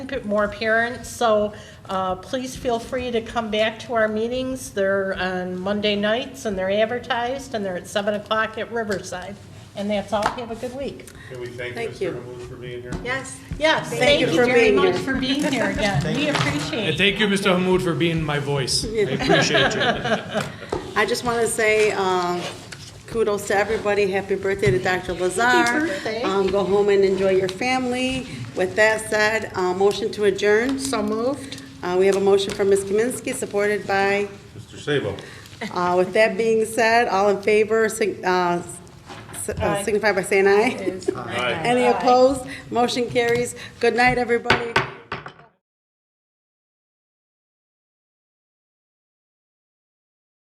keep it more apparent, so uh, please feel free to come back to our meetings. They're on Monday nights, and they're advertised, and they're at 7 o'clock at Riverside. And that's all. Have a good week. Can we thank Thank you. Mr. Hamud for being here? Yes. Yes, Thank thank you you for very being much here. for being here again. We appreciate And it. thank you, Mr. Hamoud, for being my voice. I appreciate you. I just want to say um, kudos to everybody. Happy birthday to Dr. Lazar. birthday. Um, Go home and enjoy your family. With that said, uh, motion to adjourn. So moved. Uh, We have a motion from Ms. Kaminsky, supported by, Mr. Sabo? uh, with that being said, all in favor, sig- uh, s- uh, signify by saying aye. Aye. Any opposed? Motion carries. Good night, everybody.